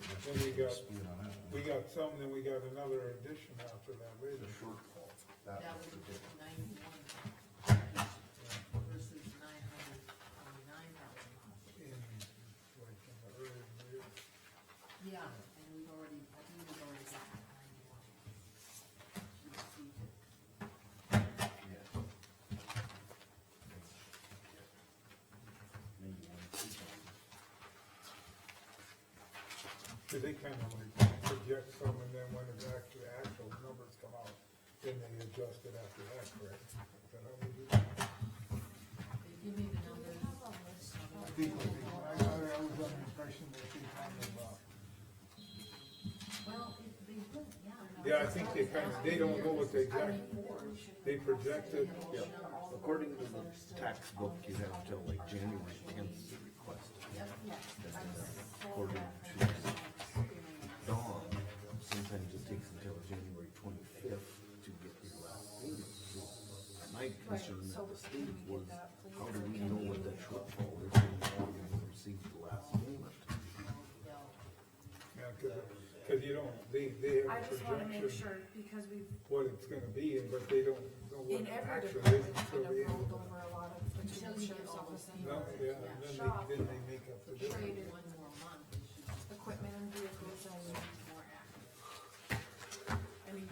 got- split on that. We got some, then we got another addition after that The later. shortfall, that That was was the difference. ninety-one versus nine hundred twenty-nine thousand. in, like, in the early years. Yeah, and we've already, I think we've already got ninety-one. We received it. Yeah. Maybe one, two times. So they kind of like project some and then when it's actually actual numbers come out, then they adjust it after that, correct? Is that how we do it? They give me the numbers. I think, I think- I I was under the impression that they kind of, uh, Well, it- they don't, yeah. Yeah, I think they kind of, they don't know what they got. They projected, Yeah, according to the tax book, you have till like January tenth to request. And then According to Dawn, sometimes it takes until January twenty-fifth to get your last payment. So My concern at the state was, how do we know what that shortfall is when we receive the last payment? yeah, cause, 'cause you don't, they, they I have a just wanna make projection sure, because we've, what it's gonna be, and but they don't know what in it every actually department, is kind until of the end. rolled over a lot of, the Until you get sheriff's all office, the No, yeah, and then they, then they make up the difference. Traded one more month, it should be equipment and vehicles and. more accurate. I mean,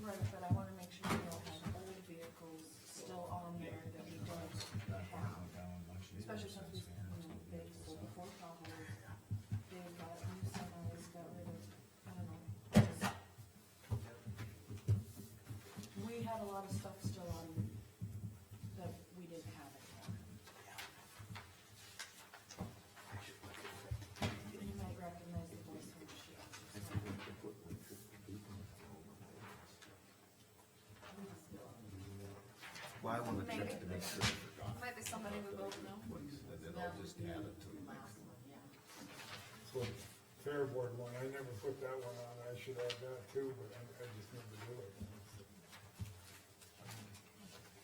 right, but I wanna make sure we don't have old vehicles still on there that we don't have, especially since we, you know, they sold the four probably. They got, new semis, got rid of, I don't know. just- We had a lot of stuff still on that we didn't have it. You might recognize the voice from Shield. Well, I wanna check to make sure, Might be somebody we both know. and then I'll just add it to the next. Last one, yeah. So, Fair board one, I never put that one on, I should add that too, but I, I just never do it.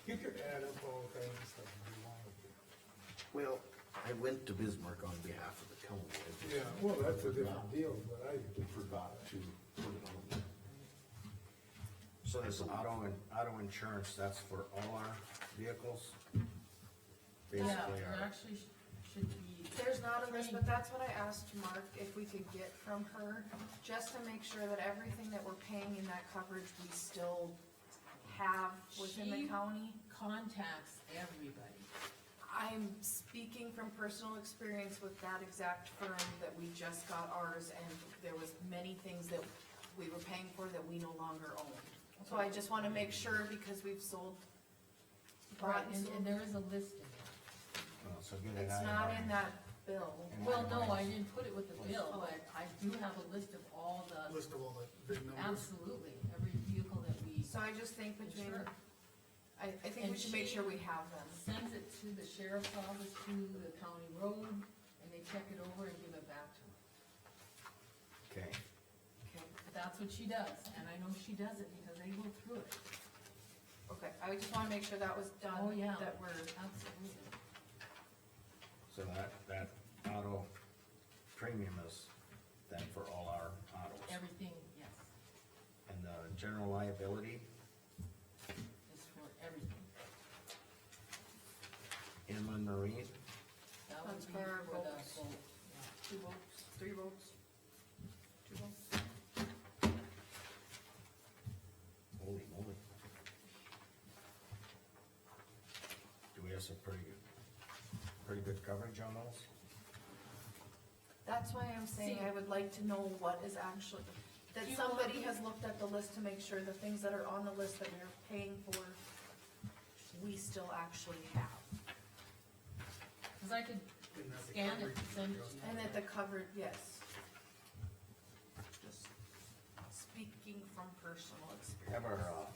You could add up all kinds of stuff if you wanted to. Well, I went to Bismarck on behalf of the county. I just Yeah, well, that's a different deal, but I, Forgot to put it on. So this auto, and auto insurance, that's for all our vehicles? Basically, Yeah, it our, actually sh- should be. There's not a list, but that's what I asked Mark if we could get from her, just to make sure that everything that we're paying in that coverage, we still have within She- the county. Contacts everybody. I'm speaking from personal experience with that exact firm that we just got ours, and there was many things that we were paying for that we no longer own. So I just wanna make sure, because we've sold. Right, bought and, sold- and there is a list in there. oh, so get it It's out of not our- in that bill. Well, no, I didn't put it with the bill, but I do have a list of all the, oh. list of all the big numbers. absolutely, every vehicle that we So I just think between, insure. I, I think we should make sure we have them. Sends it to the sheriff's office, to the county road, and they check it over and give it back to her. Okay, That's what she does, and I know she does it because they go through it. Okay, I just wanna make sure that was Oh, done, yeah. that we're. Absolutely. so that, that auto premium is then for all our autos. Everything, yes, And the general liability is for everything. inland marine, That would That's be for for our the boat, boats. yeah. Two votes, three votes. Two votes. holy moly. Do we have some pretty good, pretty good coverage on those? That's why I'm saying See- I would like to know what is actually, that Do you want somebody me- has looked at the list to make sure the things that are on the list that we're paying for, we still actually have. Cause I could And that the scan it, coverage and send it goes- to you. And that the covered, yes. Just speaking from personal experience. Have our, uh,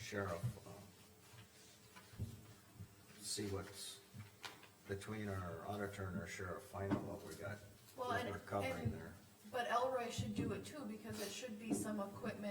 sheriff, um, see what's between our auditor and our sheriff, find out what we got, Well, what and- we're covering and- there. But Elroy should do it too, because it should be some equipment